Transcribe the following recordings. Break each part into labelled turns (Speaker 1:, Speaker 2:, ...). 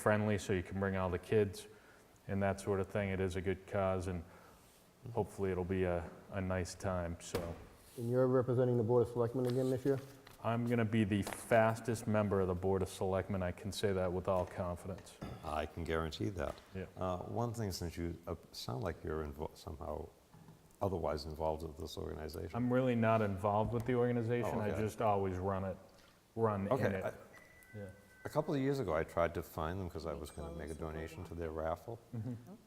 Speaker 1: friendly, so you can bring all the kids and that sort of thing. It is a good cause, and hopefully it'll be a, a nice time, so.
Speaker 2: And you're representing the Board of Selectmen again this year?
Speaker 1: I'm going to be the fastest member of the Board of Selectmen. I can say that with all confidence.
Speaker 3: I can guarantee that.
Speaker 1: Yeah.
Speaker 3: Uh, One thing, since you uh, sound like you're invo- somehow otherwise involved with this organization.
Speaker 1: I'm really not involved with the organization.
Speaker 3: Oh,
Speaker 1: I
Speaker 3: okay.
Speaker 1: just always run it, run in
Speaker 3: Okay,
Speaker 1: it.
Speaker 3: I-
Speaker 1: Yeah.
Speaker 3: a couple of years ago, I tried to find them because I was going to make a donation to their raffle.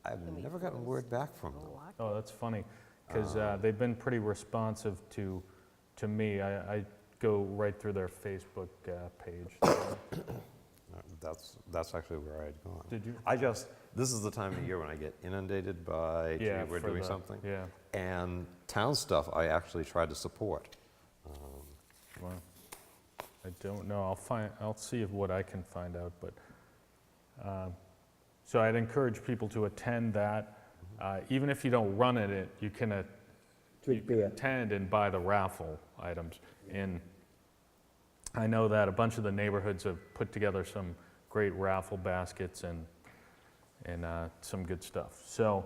Speaker 3: I've
Speaker 4: Can we
Speaker 3: never gotten
Speaker 4: close
Speaker 3: word back from them.
Speaker 1: Mm-hmm. Oh, that's funny, because
Speaker 3: Ah.
Speaker 1: they've been pretty responsive to, to me. I I go right through their Facebook uh, page. so-
Speaker 3: No, Uh, That's, that's actually where I'd gone.
Speaker 1: Did you?
Speaker 3: I just, this is the time of year when I get inundated by, gee,
Speaker 1: Yeah,
Speaker 3: we're
Speaker 1: for
Speaker 3: doing
Speaker 1: the-
Speaker 3: something.
Speaker 1: Yeah.
Speaker 3: And town stuff, I actually tried to support. Um,
Speaker 1: Wow. I don't know, I'll find, I'll see if what I can find out, but, um, so I'd encourage people to attend that. Uh, Even if you don't run in it, you can a- you
Speaker 5: Drink
Speaker 1: can
Speaker 5: beer.
Speaker 1: attend and buy the raffle items. And I know that a bunch of the neighborhoods have put together some great raffle baskets and, and uh, some good stuff. So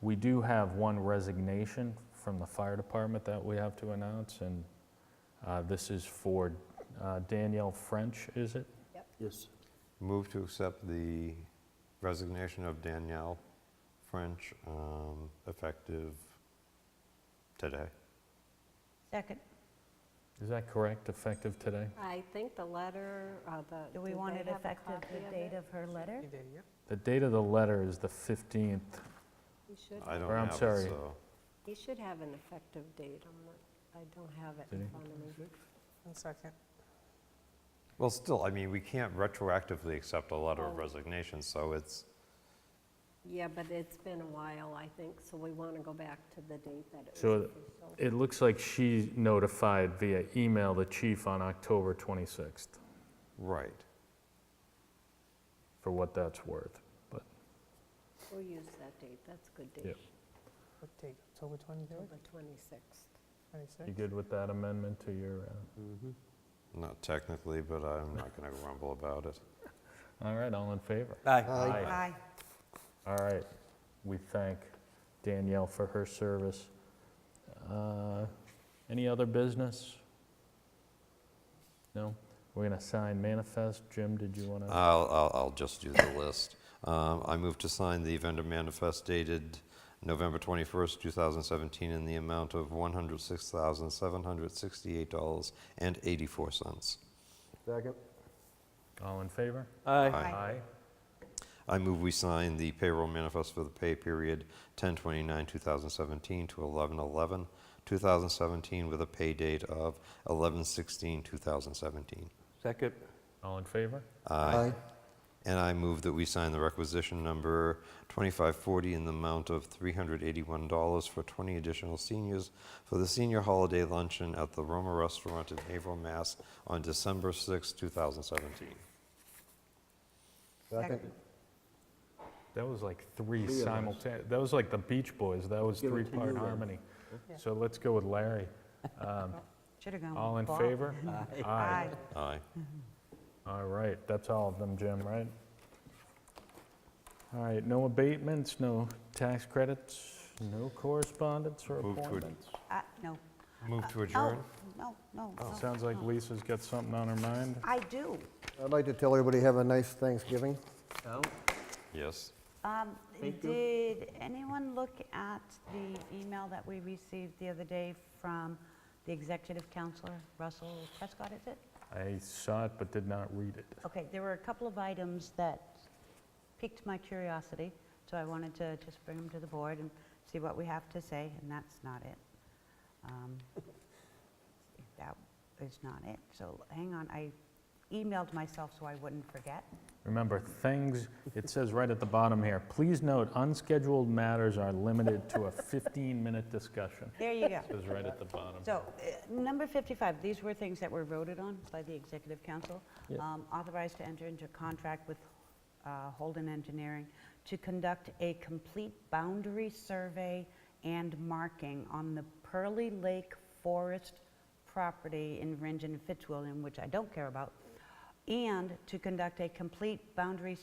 Speaker 1: we do have one resignation from the fire department that we have to announce, and uh, This is for uh, Danielle French, is it?
Speaker 5: Yes.
Speaker 3: Move to accept the resignation of Danielle French, um, effective today.
Speaker 4: Second.
Speaker 1: Is that correct, effective today?
Speaker 6: I think the letter, uh, the.
Speaker 4: Do we
Speaker 6: did
Speaker 4: want
Speaker 6: they
Speaker 4: it
Speaker 6: have a
Speaker 4: effective
Speaker 6: copy
Speaker 4: the date
Speaker 6: it?
Speaker 4: of her letter?
Speaker 1: The date of the letter is the 15th.
Speaker 6: He should,
Speaker 3: I don't
Speaker 1: Or I'm
Speaker 3: have
Speaker 1: sorry.
Speaker 3: it, so.
Speaker 6: he should have an effective date. I'm not, I don't have it
Speaker 1: Did
Speaker 6: in
Speaker 1: he?
Speaker 6: front of me.
Speaker 7: One second.
Speaker 3: Well, still, I mean, we can't retroactively accept a letter of
Speaker 6: Oh.
Speaker 3: resignation, so it's,
Speaker 6: Yeah, but it's been a while, I think, so we want to go back to the date that it
Speaker 1: So
Speaker 6: was
Speaker 1: it-
Speaker 6: official.
Speaker 1: It looks like she notified via email the chief on October 26th,
Speaker 3: right.
Speaker 1: for what that's worth. But
Speaker 6: We'll use that date. That's a good
Speaker 1: Yeah.
Speaker 6: date.
Speaker 7: What date? October 23rd,
Speaker 6: October 26th.
Speaker 7: 26th?
Speaker 1: you good with that amendment to your, uh,
Speaker 2: Mm-hmm.
Speaker 3: Not technically, but I'm not going to grumble about it.
Speaker 1: all right, all in favor?
Speaker 3: Aye.
Speaker 4: Aye.
Speaker 1: All right, we thank Danielle for her service. Uh, Any other business? No? We're going to sign manifest. Jim, did you want to?
Speaker 3: I'll, I'll, I'll just do the list. Um, I move to sign the vendor manifest dated November 21st, 2017, in the amount of $106,768.84.
Speaker 2: Second?
Speaker 1: All in favor?
Speaker 3: Aye. I move we sign the payroll manifest for the pay period 10/29/2017 to 11/11/2017 with a pay date of 11/16/2017.
Speaker 5: Second.
Speaker 1: All in favor?
Speaker 3: Aye. And I move that we sign the requisition number 2540 in the amount of $381 for 20 additional seniors for the senior holiday luncheon at the Roma Restaurant in Haverhill, Mass. on December 6, 2017.
Speaker 2: Second.
Speaker 1: That was like three
Speaker 2: Three of us.
Speaker 1: simultaneous, that was like the Beach Boys, that was
Speaker 2: Give it to you
Speaker 1: three-part
Speaker 2: then.
Speaker 1: harmony. So let's go with Larry. Um,
Speaker 4: Should have gone with
Speaker 1: All in
Speaker 4: Bob.
Speaker 1: favor? Aye.
Speaker 3: Aye.
Speaker 1: All right, that's all of them, Jim, right? All right, no abatements, no tax credits, no correspondence or
Speaker 3: Move to ad-
Speaker 1: appointments.
Speaker 4: Uh, No.
Speaker 3: Move to
Speaker 4: No,
Speaker 3: adjourn?
Speaker 4: no, no. no.
Speaker 1: Oh, Sounds like Lisa's got something on her mind.
Speaker 4: Oh. I do.
Speaker 2: I'd like to tell everybody have a nice Thanksgiving.
Speaker 3: Yes.
Speaker 4: Um, Did anyone look at the email that we received the other day from the executive counselor, Russell Prescott, is it?
Speaker 1: I saw it but did not read it.
Speaker 4: Okay, there were a couple of items that piqued my curiosity, so I wanted to just bring them to the board and see what we have to say, and that's not it. Um, That is not it, so hang on, I emailed myself so I wouldn't forget.
Speaker 1: Remember, things, it says right at the bottom here, please note, unscheduled matters are limited to a 15-minute discussion.
Speaker 4: There you go.
Speaker 1: It says right at the bottom.
Speaker 4: So, uh, number 55, these were things that were voted on by the Executive Council, Um, authorized to enter into contract with uh, Holden Engineering to conduct a complete boundary survey and marking on the Pearly Lake Forest property in Ringen and Fitzwilliam, which I don't care about, and to conduct a complete boundary